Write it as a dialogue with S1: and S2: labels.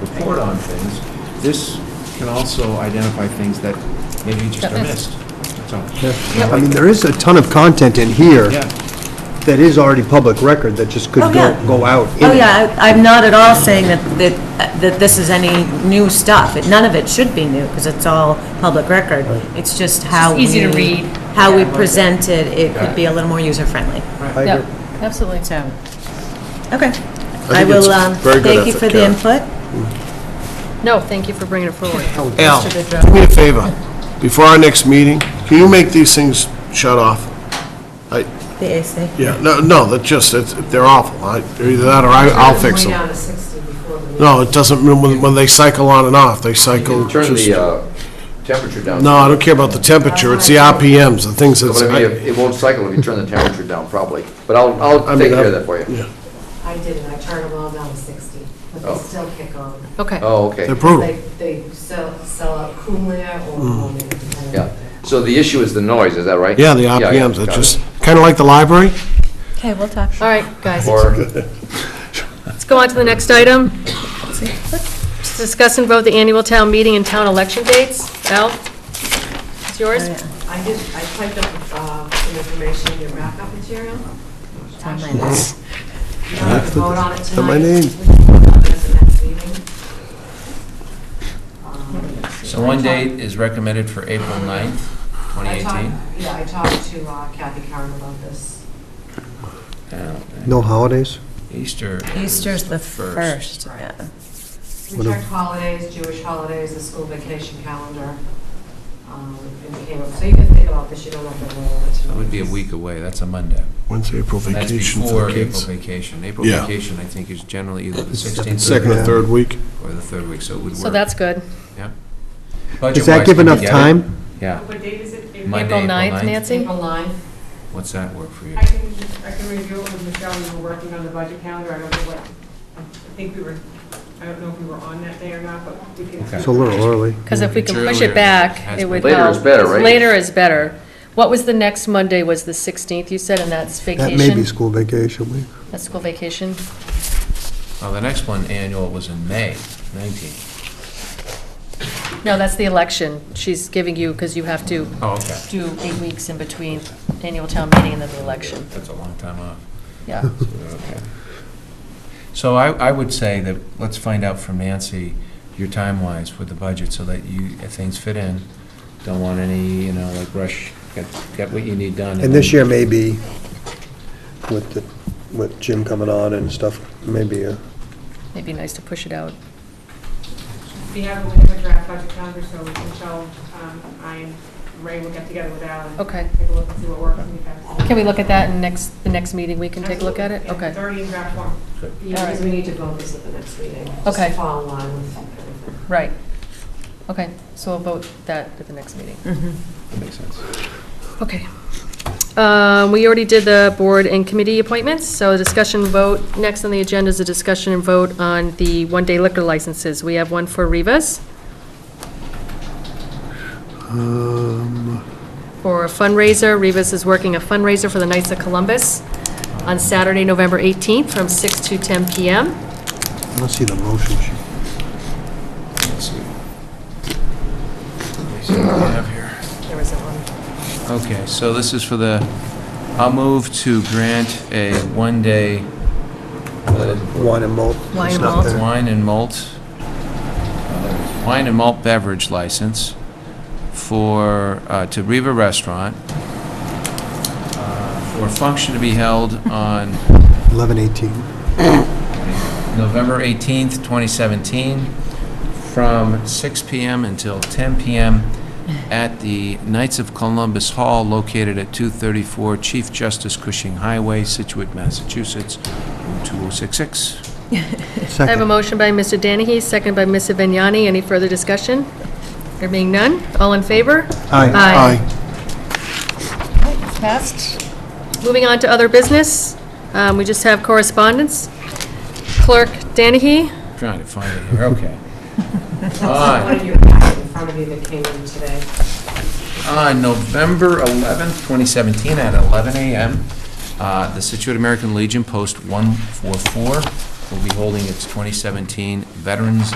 S1: report on things. This can also identify things that maybe just
S2: Got
S1: are missed.
S2: missed.
S1: So,
S3: I mean, there is a ton of content in here
S1: yeah,
S3: that is already public record that just could
S2: Oh,
S3: go,
S2: yeah.
S3: go out. in
S2: Oh,
S3: it.
S2: yeah, I- I'm not at all saying that, that, that this is any new stuff. It- None of it should be new, because it's all public record. It's just how we...
S4: It's easy to read.
S2: How we
S4: Yeah.
S2: present it, it could be a little more user-friendly.
S3: I
S4: Yep,
S3: agree.
S4: absolutely.
S2: So, okay. I
S5: think
S2: will,
S5: it's
S2: um,
S5: very good
S2: thank you for
S5: effort,
S2: the
S5: Karen.
S2: input.
S4: No, thank you for bringing it forward.
S5: Al,
S4: Mr. Goodrow.
S5: do me a favor, before our next meeting, can you make these things shut off? I,
S2: The AC.
S5: yeah, no, no, that just, it's, they're awful, I, either that or I, I'll fix them. No, it doesn't, when, when they cycle on and off, they cycle
S6: Turn
S5: just,
S6: the uh, temperature down.
S5: no, I don't care about the temperature, it's the RPMs, the things that's.
S6: But I mean, it it won't cycle if you turn the temperature down, probably. But I'll, I'll
S5: I mean,
S6: take care
S5: I-
S6: of that for you.
S5: yeah,
S7: I did it, I turned them all down to 60, but
S6: Oh.
S7: they still kick on.
S4: Okay.
S6: Oh, okay.
S5: They're brutal.
S7: They, they sell, sell out Kumler or Monin, depending on
S6: Yeah. So the issue is the noise, is that right?
S5: Yeah, the
S6: yeah,
S5: RPMs,
S6: got
S5: they're
S6: it.
S5: just, kinda like the library,
S2: Okay, we'll talk.
S4: All right, guys,
S6: Or,
S4: let's go on to the next item. To Discuss and vote the annual town meeting and town election dates. Al, it's yours?
S7: I did, I typed up uh, some information in your backup material.
S2: on my
S7: list. You don't have to vote on it
S5: It's on my
S7: tonight.
S5: name.
S7: We can vote on it at the next meeting. Um,
S8: So one date is recommended for April 9th,
S7: Um, I
S8: 2018.
S7: talked- Yeah, I talked to uh, Kathy Karen about this.
S3: No holidays?
S8: Uh, Easter. is
S2: Easter's the first, yeah.
S7: We
S3: What
S7: checked
S3: if-
S7: holidays, Jewish holidays, the school vacation calendar, um, and came up, so you can think about this, you don't have to roll it.
S8: That would be a week away, that's a Monday.
S5: when's April
S8: And That's
S5: vacation for
S8: before
S5: the
S8: April
S5: kids?
S8: vacation. April
S5: Yeah.
S8: vacation, I think, is generally either the
S5: Second
S8: 16th
S5: or third week,
S8: or the third week, so it would work.
S4: So that's good.
S3: Does
S8: Budget-wise,
S3: that give
S8: can we
S3: enough
S8: get it?
S3: time?
S8: Yeah.
S9: What date is it?
S8: Monday,
S4: April
S8: April
S4: 9th,
S8: 9th.
S4: Nancy?
S7: April 9th.
S8: What's that work for you?
S9: I can, I can review it with Michelle, we were working on the budget calendar, I don't know what, I think we were, I don't know if we were on that day or not, but we can.
S8: Okay.
S3: It's a little early.
S4: Because if we
S8: It's
S4: can push
S8: earlier,
S4: it back,
S8: has
S4: it would
S8: been-
S4: help.
S6: Later is better, right?
S4: Later is better. What was the next Monday, was the 16th, you said, and that's
S3: That
S4: vacation?
S3: may be school vacation week.
S4: That's school vacation.
S8: Well, the next one, annual, was in May 19th.
S4: No, that's the election. She's giving you, because you have to
S8: Oh, okay.
S4: do eight weeks in between annual town meeting and then the election.
S8: That's a long time off.
S4: Yeah.
S8: Okay. So I, I would say that, let's find out from Nancy, your time-wise with the budget, so that you, if things fit in. Don't want any, you know, like rush, get, get what you need done.
S3: And this year may be, with, the- with Jim coming on and stuff, maybe uh, a
S4: It'd be nice to push it out.
S9: We have a we have a draft budget calendar, so Michelle, um, I, and Ray will get together with Alan.
S4: Okay.
S9: Take a look and see what works and we have.
S4: Can we look at that in next, the next meeting, we can take a look at it?
S9: Absolutely, yeah, It's
S4: Okay,
S9: already in draft form.
S7: Yeah, because
S4: Alright.
S7: we need to vote this at the next meeting. just
S4: Okay.
S7: to Follow along with everything.
S4: right. Okay, so we'll vote that at the next meeting.
S8: That makes sense.
S4: Okay. Um, We already did the board and committee appointments, so discussion vote. Next on the agenda is a discussion and vote on the one-day liquor licenses. We have one for Rivas
S5: Um,
S4: for a fundraiser. Rivas is working a fundraiser for the Knights of Columbus on Saturday, November 18th, from 6 to 10 p.m.
S3: I don't see the motion sheet.
S8: Let's see. Let me see what we have here.
S4: There was that one.
S8: Okay, so this is for the, I'll move to grant a one-day uh,
S3: Wine and malt.
S4: Wine
S3: It's
S4: and
S3: not
S4: malt.
S3: there.
S8: wine and malt, uh, wine and malt beverage license for, uh, to Riva Restaurant, uh, for a function to be held on
S3: 11:18.
S8: November 18th, 2017, from 6 PM until 10 PM at the Knights of Columbus Hall located at 234 Chief Justice Cushing Highway, Situate, Massachusetts, 02066.
S4: I have a
S3: Second.
S4: motion by Mr. Danahy, second by Ms. Vignani. Any further discussion? There being none, all in favor?
S3: Aye.
S4: Aye.
S5: aye.
S4: Passed. Moving on to other business, um, we just have correspondence. Clerk Danahy,
S8: Trying to find it here, okay. Uh,
S7: Also,
S8: On-
S7: One of you have in front of you that came in today.
S8: On Uh, November 11th, 2017, at 11 a.m., uh, the Situate American Legion Post 144 will be holding its 2017 Veterans